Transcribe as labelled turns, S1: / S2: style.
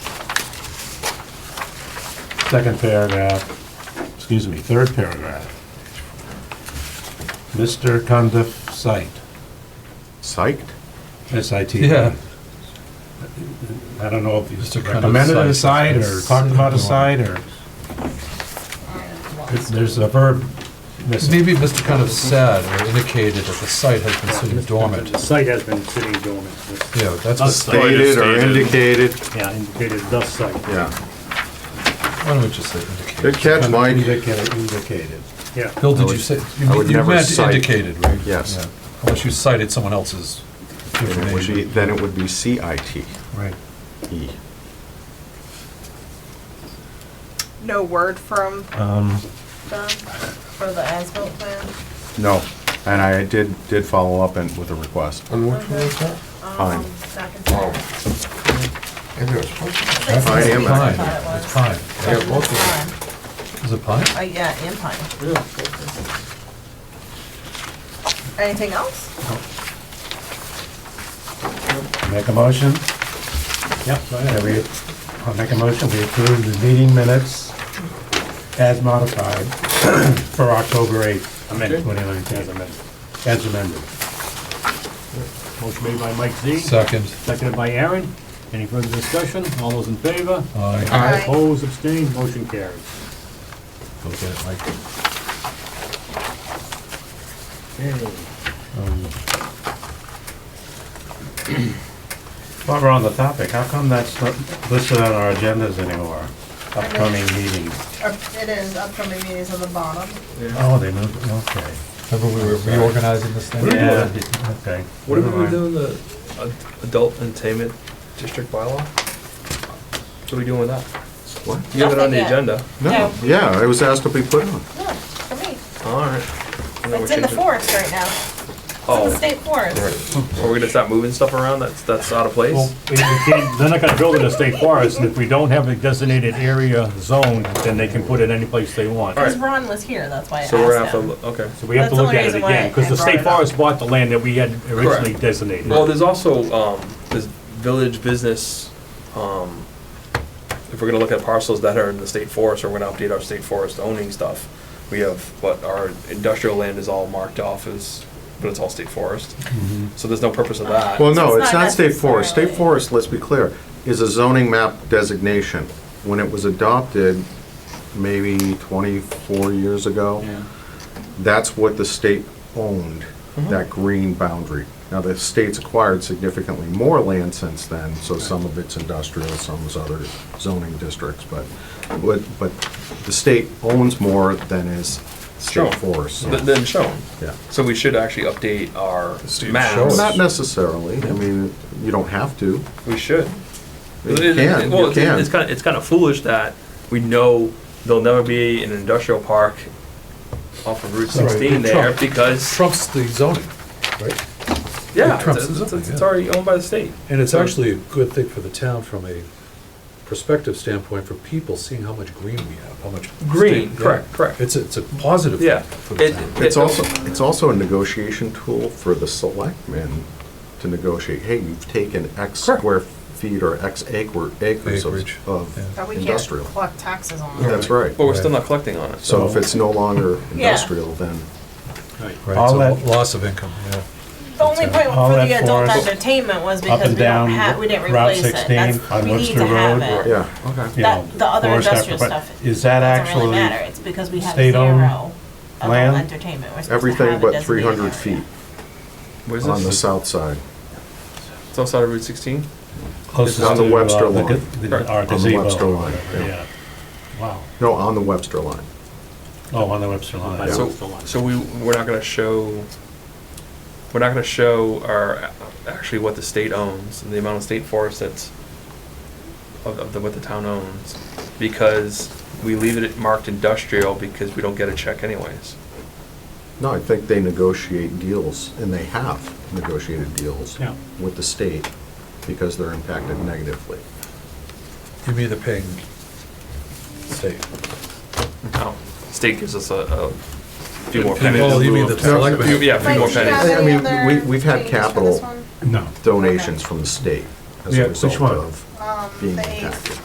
S1: second paragraph, excuse me, third paragraph. Mr. Tundiff site,
S2: Psyched?
S1: S-I-T.
S3: Yeah.
S1: I don't know if he's
S3: Mr. Tundiff
S1: recommended a
S3: site.
S1: site or talked about a site or, there's a verb missing.
S3: Maybe Mr. kind of said or indicated that the site has been sitting dormant.
S4: The site has been sitting dormant. It's-
S3: Yeah,
S4: Thus
S3: that's, what-
S4: site.
S2: Stated or indicated,
S4: Yeah, indicated thus site,
S2: yeah.
S3: why don't we just say indicated?
S2: Good catch, Mike.
S1: Indicated, indicated.
S4: yeah.
S3: Bill,
S2: I
S3: did you
S2: would-
S3: say, you
S2: I would
S3: you
S2: never
S3: meant
S2: cite-
S3: indicated, right?
S2: Yes.
S3: Yeah. Unless you cited someone else's
S2: Then it would be-
S3: information.
S2: Then it would be CIT.
S3: Right.
S2: E.
S5: No word from them for the asphalt plan?
S2: No, and I did, did follow up and with a request.
S6: On which one is that?
S2: Fine.
S5: Um, second sentence.
S6: Maybe it was supposed
S5: I think
S2: Pine
S5: it's
S2: and
S5: pine.
S3: Pine,
S5: I thought it
S6: to-
S3: it's pine.
S5: was.
S6: Yeah, both of them.
S5: Pine.
S3: Is it pine?
S5: Uh, yeah, and pine. Anything else?
S1: Make a motion? Yep. I'll make a motion, we approve the meeting minutes as modified for October 8th,
S4: Amended.
S1: 2019.
S4: As amended.
S1: as amended.
S4: Motion made by Mike Z.
S3: Second.
S4: Seconded by Aaron. Any further discussion? All those in favor?
S3: Aye.
S5: Aye.
S4: Opposed, abstained, motion carries.
S3: Go get it, Mike.
S4: Okay.
S1: While we're on the topic, how come that's not listed on our agendas anymore? Upcoming meetings?
S5: Uh, It is upcoming meetings on the bottom.
S1: Oh, they moved, it, okay.
S3: Remember we were reorganizing this thing?
S1: Yeah, okay.
S7: What
S1: never
S7: have we been
S1: mind.
S7: doing, the uh, adult entertainment district bylaw? What are we doing with that?
S2: What?
S7: You have it on the
S5: Nothing yet.
S7: agenda.
S2: No,
S5: No.
S2: yeah, it was asked to be put on.
S5: Yeah, for me.
S7: All right. And then
S5: It's
S7: we're
S5: in the
S7: changing-
S5: forest right now. It's in the
S7: Oh,
S5: state forest.
S7: so we're gonna start moving stuff around that's, that's out of place?
S4: Well, we- we can't- They're not gonna build it in a state forest, and if we don't have a designated area zoned, then they can put it any place they want.
S5: Because Ron was here, that's why I asked
S7: So we're gonna have to,
S5: him.
S7: look- okay.
S4: So we have to
S5: That's the
S4: look at it
S5: reason why
S4: again, because
S5: I
S4: the
S5: brought it
S4: state
S5: up.
S4: forest bought the land that we had originally
S7: Correct.
S4: designated.
S7: Well, there's also, um, this village business, um, if we're gonna look at parcels that are in the state forest, or we're gonna update our state forest owning stuff, we have, but our industrial land is all marked off as, but it's all state forest. So there's no purpose of that.
S2: Well, no,
S5: So it's
S2: it's
S5: not
S2: not state forest. State
S5: necessarily-
S2: forest, let's be clear, is a zoning map designation. When it was adopted, maybe 24 years ago, that's what the state owned,
S7: Mm-hmm.
S2: that green boundary. Now, the state's acquired significantly more land since then, so some of it's industrial, some is other zoning districts, but, but, but the state owns more than is
S7: Sure.
S2: state forest. so-
S7: Th- Then shown.
S2: Yeah.
S7: So we should actually update our
S6: Steve, show us.
S7: maps.
S2: Not necessarily, I mean, you don't have to.
S7: We should.
S2: You
S7: It- it-
S2: can,
S7: well,
S2: you
S7: it's-
S2: can.
S7: It's kind of, it's kind of foolish that we know there'll never be an industrial park off of Route sixteen there
S3: Trump.
S7: because,
S3: Trumps the zoning, right?
S7: yeah,
S3: Trump
S7: it's,
S3: says
S7: it's-
S3: something,
S7: it's
S3: yeah.
S7: already owned by the state.
S3: And it's actually a good thing for the town from a perspective standpoint for people seeing how much green we have, how much.
S7: Green,
S3: state-
S7: correct,
S3: yeah.
S7: correct.
S3: It's, a- it's a positive
S7: Yeah.
S3: thing for the
S7: It-
S3: town.
S7: it-
S2: It's also, it's also a negotiation tool for the selectmen to negotiate, hey, you've taken X
S7: Correct.
S2: square feet or X acre, acres
S3: Acreage,
S2: of-
S3: yeah.
S5: But
S2: of
S5: we can't
S2: industrial.
S5: collect taxes on it.
S2: That's right.
S7: But we're still not collecting on it.
S2: So if it's no longer
S5: Yeah.
S2: industrial, then,
S3: Right,
S1: All
S3: it's a
S1: that-
S3: lo- loss of income, yeah.
S5: The only point
S1: All
S5: for
S1: that
S5: the adult
S1: forest
S5: entertainment was
S1: Up
S5: because we
S1: and
S5: don't
S1: down
S5: have, we
S1: Route
S5: didn't replace it.
S1: 16
S5: That's,
S1: on
S5: we need to
S1: Webster Road.
S5: have it.
S2: yeah, okay.
S1: you
S5: That-
S1: know,
S5: the other
S1: forest
S5: industrial
S1: after- but
S5: stuff
S1: Is that
S5: Doesn't really
S1: actually,
S5: matter, it's because we have
S1: state-owned
S5: zero adult
S1: land?
S5: entertainment. We're supposed to
S2: everything
S5: have a
S2: but three
S5: designated
S2: hundred
S5: area.
S2: feet
S7: Where's
S2: on the
S7: this?
S2: south side.
S7: It's outside of Route sixteen?
S1: closest
S2: on the
S1: to, uh,
S2: Webster line.
S1: the- the- Our
S2: On the Webster
S1: gazebo.
S2: line, yeah.
S1: Yeah. Wow.
S2: No, on the Webster line.
S1: Oh, on the Webster line.
S2: Yeah.
S7: So, so we, we're not gonna show, we're not gonna show our, actually what the state owns and the amount of state forest that's of, of the, what the town owns, because we leave it marked industrial because we don't get a check anyways.
S2: No, I think they negotiate deals, and they have negotiated deals
S4: Yeah.
S2: with the state because they're impacted negatively.
S3: You mean the paying state?
S7: No, state gives us a, a few more
S3: Well, Oh. you
S7: pennies.
S3: mean the selectmen?
S7: Few- Yeah, a few
S5: Mike,
S7: more
S5: do you have
S7: pennies.
S2: I
S5: any
S2: mean,
S5: other
S2: we- we've had
S5: changes for
S2: capital
S5: this one?
S1: No.
S2: Donations from the state as
S1: Yeah,
S2: a
S1: which
S2: result
S1: one?
S2: of
S5: Um,
S2: being
S5: the eighth.
S2: impacted.